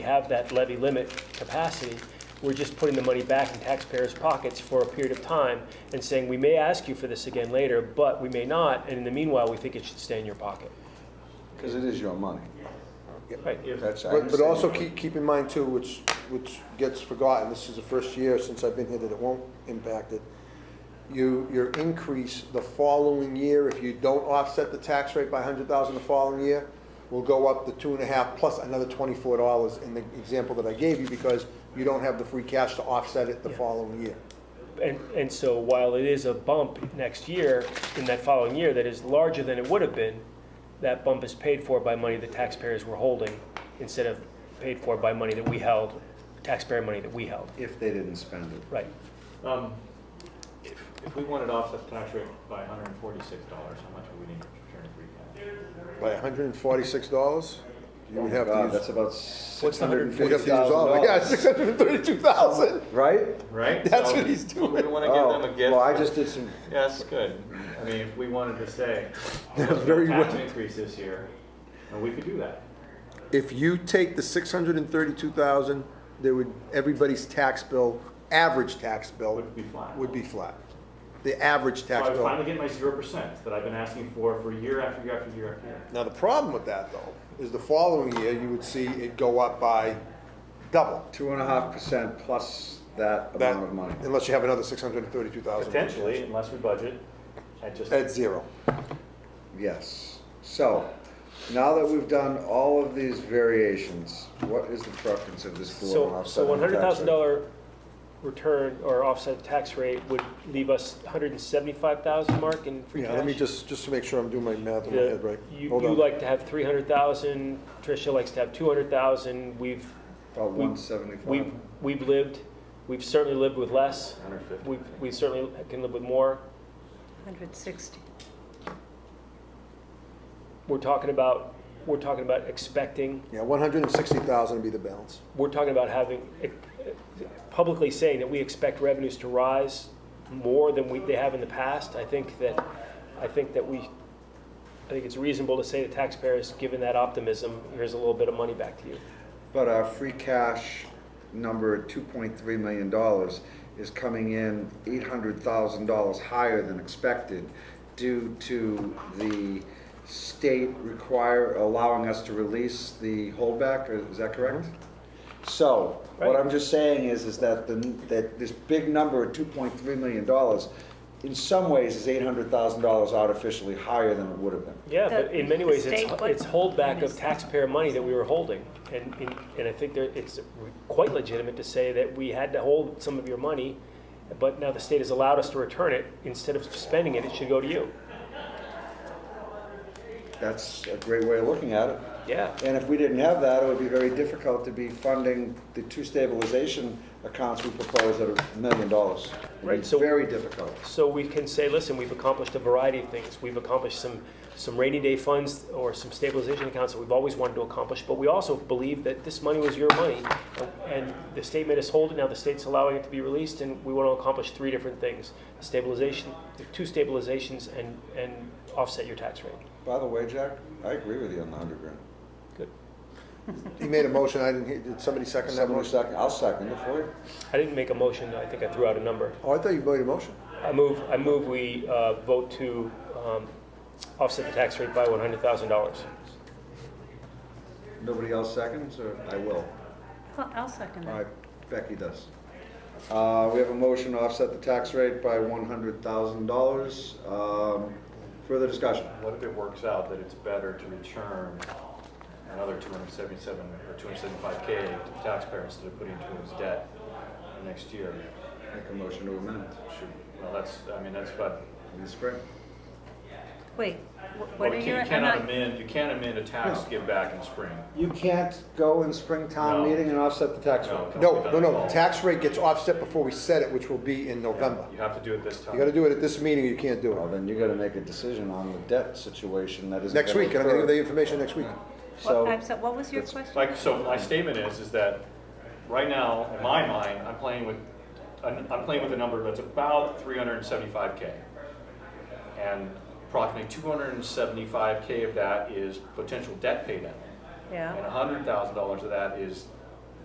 have that levy limit capacity, we're just putting the money back in taxpayers' pockets for a period of time and saying, we may ask you for this again later, but we may not, and in the meanwhile, we think it should stay in your pocket. Because it is your money. Right. That's, I But, but understand. also keep, keep in mind too, which, which gets forgotten, this is the first year since I've been here that it won't impact it. You, your increase the following year, if you don't offset the tax rate by hundred thousand the following year, will go up to two and a half plus another twenty-four dollars in the example that I gave you, because you don't have the free cash to offset it the following year. And, and so while it is a bump next year, in that following year, that is larger than it would have been, that bump is paid for by money the taxpayers were holding instead of paid for by money that we held, taxpayer money that we held. If they didn't spend it. Right. Um, If if we wanted to offset the tax rate by $146, how much would we need to return in free cash? By hundred and forty-six dollars, you would have to God, use. that's about What's six the hundred and you'd fifty have to use all thousand of it. Yeah, dollars. six hundred and thirty-two thousand. Right? Right? That's So what he's doing. We want to give Oh, them a gift. Well, I just did some, Yes, good. I mean, if we wanted to say, "Oh, "What's Very the tax well. increase this year?" And we could do that. If you take the six hundred and thirty-two thousand, there would, everybody's tax bill, average tax bill, Would be flat. would be flat. The average So tax I would finally bill. get my 0% that I've been asking for for year after year after year after year. Now, the problem with that though, is the following year, you would see it go up by double. two and a half percent plus that That- amount of money. Unless you have another six hundred and thirty-two thousand. Potentially, unless we budget, I just, At zero. Yes. So, now that we've done all of these variations, what is the preference of this board on So, so offsetting one the hundred tax thousand rate? dollar return or offset tax rate would leave us one hundred and seventy-five thousand mark in free cash. Yeah, let me just, just to make sure I'm doing my math in my The- head right. You, Hold you on. like to have three hundred thousand, Tricia likes to have two hundred thousand, we've, About we- one seventy-five. we've, we've lived, we've certainly lived with less, 150. we, we certainly can live with more. 160. We're talking about, we're talking about expecting, Yeah, one hundred and sixty thousand would be the balance. we're talking about having, eh, eh, publicly saying that we expect revenues to rise more than we, they have in the past. I think that, I think that we, I think it's reasonable to say to taxpayers, given that optimism, here's a little bit of money back to you. But our free cash number at two point three million dollars is coming in eight hundred thousand dollars higher than expected due to the state require, allowing us to release the holdback, or is that correct? So, what Right. I'm just saying is, is that the, that this big number of two point three million dollars in some ways is eight hundred thousand dollars artificially higher than it would have been. Yeah, The- but in many ways, the it's, state- it's holdback of Yes. taxpayer money that we were holding. And, and- and I think there, it's quite legitimate to say that we had to hold some of your money, but now the state has allowed us to return it. Instead of spending it, it should go to you. That's a great way of looking at it. Yeah. And if we didn't have that, it would be very difficult to be funding the two stabilization accounts we proposed at a million dollars. It'd be Right, so- Very difficult. So we can say, listen, we've accomplished a variety of things. We've accomplished some, some rainy day funds or some stabilization accounts that we've always wanted to accomplish, but we also believe that this money was your money, and the state made us hold it, now the state's allowing it to be released, and we want to accomplish three different things. Stabilization, two stabilizations, and, and offset your tax rate. By the way, Jack, I agree with you on the hundred grand. Good. He made a motion, I didn't hear, did somebody second that Someone motion? second, I'll second it for you. I didn't make a motion, I think I threw out a number. Oh, I thought you made a motion. I move, I move we uh, vote to um, offset the tax rate by $100,000. Nobody else seconds, or I will? Well, I'll second All that. right, Becky does. Uh, we have a motion to offset the tax rate by one hundred thousand dollars. Um, further discussion? what if it works out that it's better to return another 277 or 275K to the taxpayer instead of putting it towards debt next year? Make a motion to amend Should, well, that's, I mean, that's what, in the spring. Wait, wh- well, what are you your, can't- you I'm cannot not, amend, you can't amend a tax No. give back in spring. You can't go in spring town No. meeting and offset the tax rate. No, no, no, that's all. the tax rate gets offset before we set it, which will be in November. You have to do it this time. You gotta do it at this meeting, or you can't do Well, it. Oh, then you gotta make a decision on the debt situation that is. Next week, and I'm gonna give the information next week. what- So, I'm so- what was your it's question? Like, so my statement is, is that right now, in my mind, I'm playing with, I'm I'm playing with a number that's about 375K. And approximately 275K of that is potential debt paydown. And Yeah, $100,000 of that is